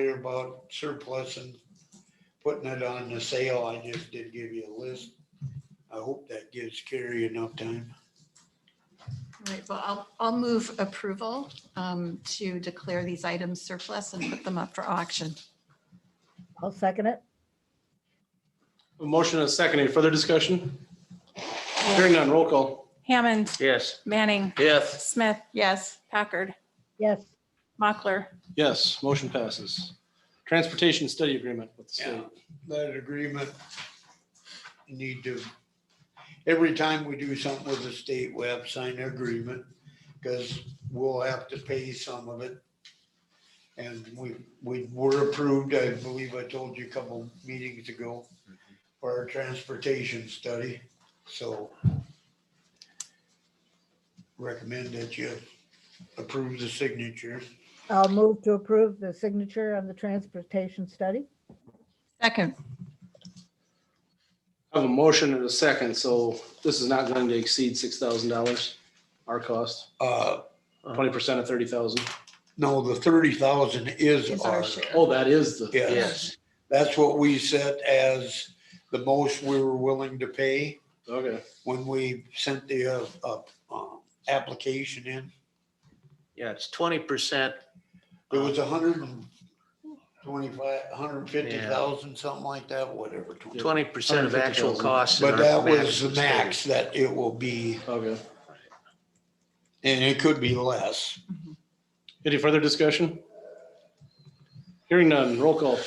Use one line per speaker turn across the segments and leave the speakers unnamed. about surplus and putting it on the sale, I just did give you a list. I hope that gives Carrie enough time.
All right, well, I'll, I'll move approval um, to declare these items surplus and put them up for auction.
I'll second it.
A motion and a second. Any further discussion? Hearing none, roll call.
Hammond,
Yes.
Manning,
Yes.
Smith,
Yes,
Packard,
Yes,
Mockler.
Yes, motion passes. Transportation study agreement with the
Yeah,
state.
that agreement need to, every time we do something with the state, we have to sign an agreement because we'll have to pay some of it. And we, we were approved, I believe I told you a couple meetings ago for our transportation study, so recommend that you approve the signature.
I'll move to approve the signature on the transportation study.
second,
I have a motion and a second, so this is not going to exceed six thousand dollars, our cost,
Uh,
Uh-huh.
twenty percent of thirty thousand.
no, the thirty thousand is
is our
ours.
share.
Oh, that is the.
Yeah.
Yes.
That's what we set as the most we were willing to pay
Okay,
when we sent the, uh, uh, uh, application in.
Yeah, it's twenty percent.
It was a hundred and twenty-five, hundred and fifty thousand, something like that, whatever.
Twenty percent of actual
150,000.
costs.
But
and
that
our
was the
is
max that it will be,
okay.
and it could be less.
Any further discussion? Hearing none, roll call.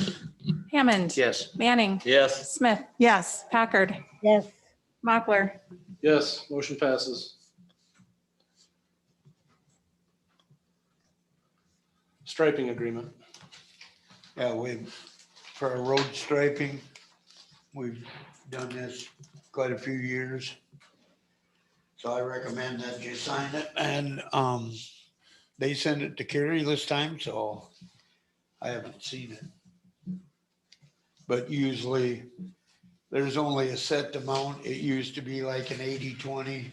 Hammond,
30. Yes.
Manning,
Yes.
Smith,
Yes,
Packard,
Yes,
Mockler.
Yes, motion passes. Striping agreement.
Yeah, we, for our road striping, we've done this quite a few years. So I recommend that you sign it and, um, they sent it to Carrie this time, so I haven't seen it. But usually, there's only a set amount. It used to be like an 80-20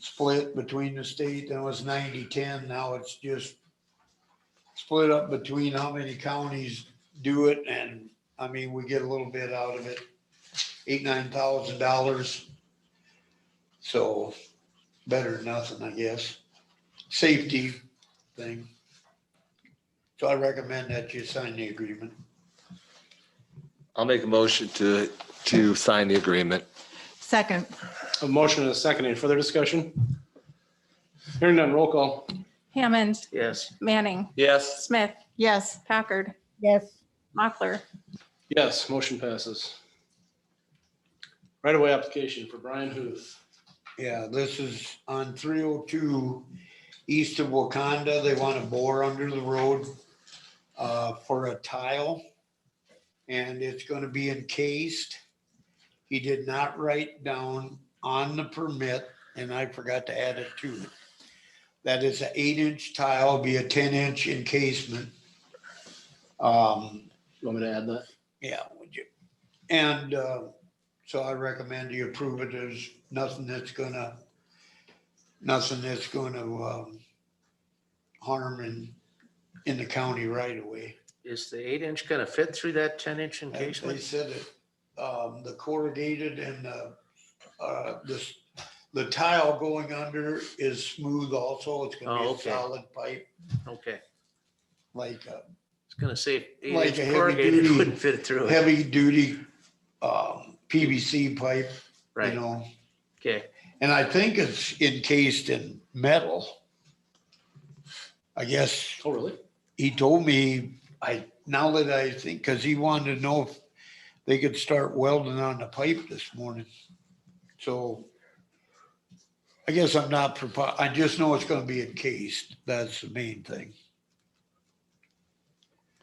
split between the state, then it was 90-10. now it's just split up between how many counties do it and, I mean, we get a little bit out of it, eight, nine thousand dollars. So better than nothing, I guess. Safety thing. So I recommend that you sign the agreement.
I'll make a motion to, to sign the agreement.
second,
A motion and a second. Any further discussion? Hearing none, roll call.
Hammond,
Yes.
Manning,
Yes.
Smith,
yes,
Packard,
yes,
Mockler.
Yes, motion passes. Right-of-way application for Brian Huth.
Yeah, this is on three oh two east of Wakanda. They want to bore under the road uh, for a tile. And it's going to be encased. He did not write down on the permit, and I forgot to add it to it. That is an eight inch tile, be a ten inch encasement. Um,
You Want me to add that?
yeah, would you? And uh, so I recommend you approve it. There's nothing that's gonna, nothing that's gonna um, harm in, in the county right away.
Is the eight inch gonna fit through that ten inch
They they
encasement?
said it, um, the corrugated and the, uh, this, the tile going under is smooth also. It's
Oh,
gonna be a
okay.
solid pipe,
Okay.
like a
It's gonna say
Like
eight
a
inch
heavy
corrugated
duty-
wouldn't fit through it.
heavy duty um, PVC pipe, you
Right.
know?
Okay.
And I think it's encased in metal. I guess
Oh, really?
he told me, I, now that I think, because he wanted to know if they could start welding on the pipe this morning. So I guess I'm not, propo- I just know it's gonna be encased. That's the main thing.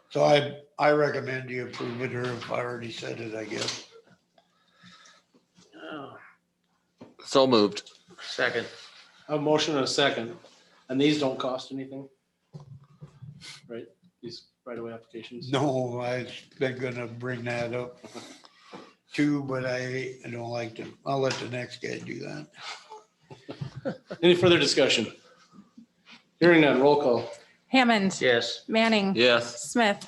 So I, I recommend you approve it, or if I already said it, I guess.
Oh,
So moved.
Second.
A motion and a second. And these don't cost anything? Right? These right-of-way applications?
No, I've been gonna bring that up too, but I I don't like to, I'll let the next guy do that.
Any further discussion? Hearing none, roll call.
Hammond,
Yes.
Manning,
Yes.
Smith,